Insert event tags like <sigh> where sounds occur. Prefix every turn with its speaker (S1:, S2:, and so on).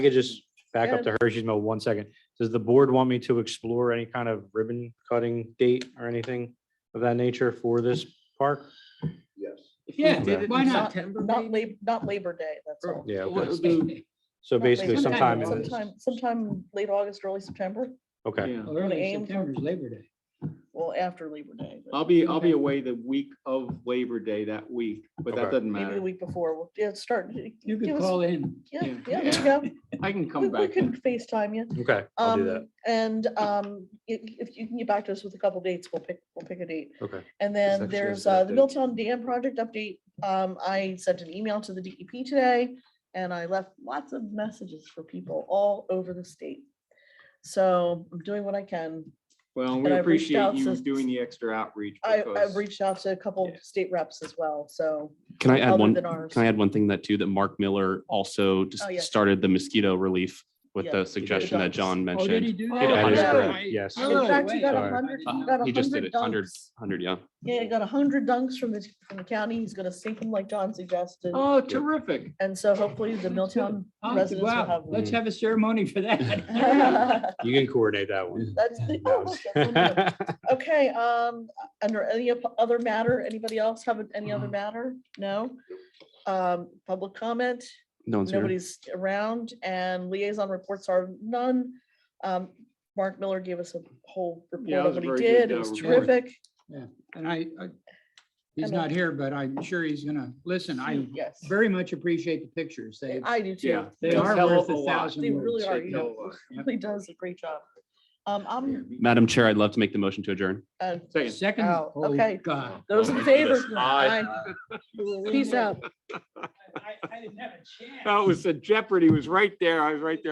S1: I could just back up
S2: Yeah.
S1: to Hershey's Mill one second. Does the board want me to explore any kind of ribbon cutting date or anything of that nature for this park?
S3: Yes.
S4: If we
S5: Yeah,
S4: did it in
S5: why not?
S4: September,
S2: Not
S4: maybe?
S2: Lab, not Labor Day, that's all.
S1: Yeah,
S4: Well, it
S1: okay.
S4: would be-
S1: So
S2: Not Labor
S1: basically
S2: Day.
S1: sometime, in
S5: Sometime.
S1: this-
S2: Sometime, sometime late August, early September,
S1: okay,
S4: yeah.
S5: Well, Early
S2: aim for-
S5: September is Labor Day.
S2: well, after Labor Day. but
S4: I'll be, I'll be away the week of Labor Day that week, but that
S1: Okay.
S4: doesn't
S2: Maybe the
S4: matter.
S2: week before, we'll, yeah, start.
S5: You
S2: give
S5: could
S2: us-
S5: call in.
S2: Yeah,
S4: yeah,
S2: yeah, there you go.
S4: I can
S2: We-
S4: come
S2: We
S4: back. then.
S2: could FaceTime you.
S1: okay, I'll do that,
S2: Um, and, um, if, if you can get back to us with a couple dates, we'll pick, we'll pick a date.
S1: okay.
S2: And
S4: actually
S2: then
S4: a
S2: there's
S4: set
S2: uh, the
S4: date.
S2: Milltown Dam project update. Um, I sent an email to the DEP today and I left lots of messages for people all over the state. So I'm doing what I can.
S4: Well,
S2: and
S4: we
S2: I've reached
S4: appreciate
S2: out
S4: you
S2: since-
S4: doing the extra outreach.
S2: I, I've
S4: because-
S2: reached out to a couple
S4: Yeah.
S2: state reps as well, so.
S6: Can I add
S2: other
S6: one,
S2: than ours.
S6: can I add one thing that too, that Mark Miller also just
S2: Oh, yes.
S6: started the mosquito relief with
S2: Yeah,
S6: the suggestion that
S2: dogs.
S6: John
S5: Oh, did he
S6: mentioned.
S5: do
S2: Oh,
S5: that?
S1: That is
S2: yeah.
S1: correct, yes.
S5: Oh,
S2: In fact, he got a
S1: Sorry.
S2: hundred,
S5: Uh-huh.
S2: he got
S6: He
S2: a
S6: just did
S2: hundred
S6: it, hundred,
S2: dunks.
S6: hundred, yeah.
S2: Yeah, he got a hundred dunks from the, from the county. He's gonna sink them like John suggested.
S4: Oh, terrific.
S2: And so hopefully the Milltown
S5: Oh,
S2: residents will
S5: Wow,
S2: have.
S5: let's have a ceremony for
S2: <laughs>
S5: that.
S2: That's
S1: You can coordinate that one.
S6: <laughs>
S2: the. <laughs> oh, look, that's one of them. Okay, um, under any of- other matter, anybody else have any
S6: Mm-hmm.
S2: other matter? No? Um, public comment,
S6: No one's here.
S2: nobody's around and liaison reports are none. Um, Mark Miller gave us a whole report
S4: Yeah, it
S2: of
S4: was a
S2: what he
S4: very good,
S2: did. It
S4: uh,
S2: was
S4: report.
S2: terrific.
S5: And I, I- he's
S2: And, uh,
S5: not here, but I'm sure he's gonna listen. I
S2: Yes,
S5: very much appreciate the pictures. They,
S2: I do
S4: Yeah.
S2: too.
S5: they
S4: They
S5: are
S4: tell
S5: worth
S4: a
S5: a
S4: lot.
S5: thousand
S2: They really
S5: words.
S2: are,
S4: They
S2: you
S4: tell
S2: know,
S4: a
S2: <laughs>
S4: lot. Yep.
S2: He does a great job. Um, I'm,
S6: Madam Chair, I'd love to make the motion to adjourn.
S2: uh,
S4: Second.
S5: Second,
S2: Wow,
S5: oh,
S2: okay.
S5: God.
S2: those
S4: <laughs>
S2: in favor? Aye. Peace out.
S4: That was, a Jeopardy was right there. I was right there.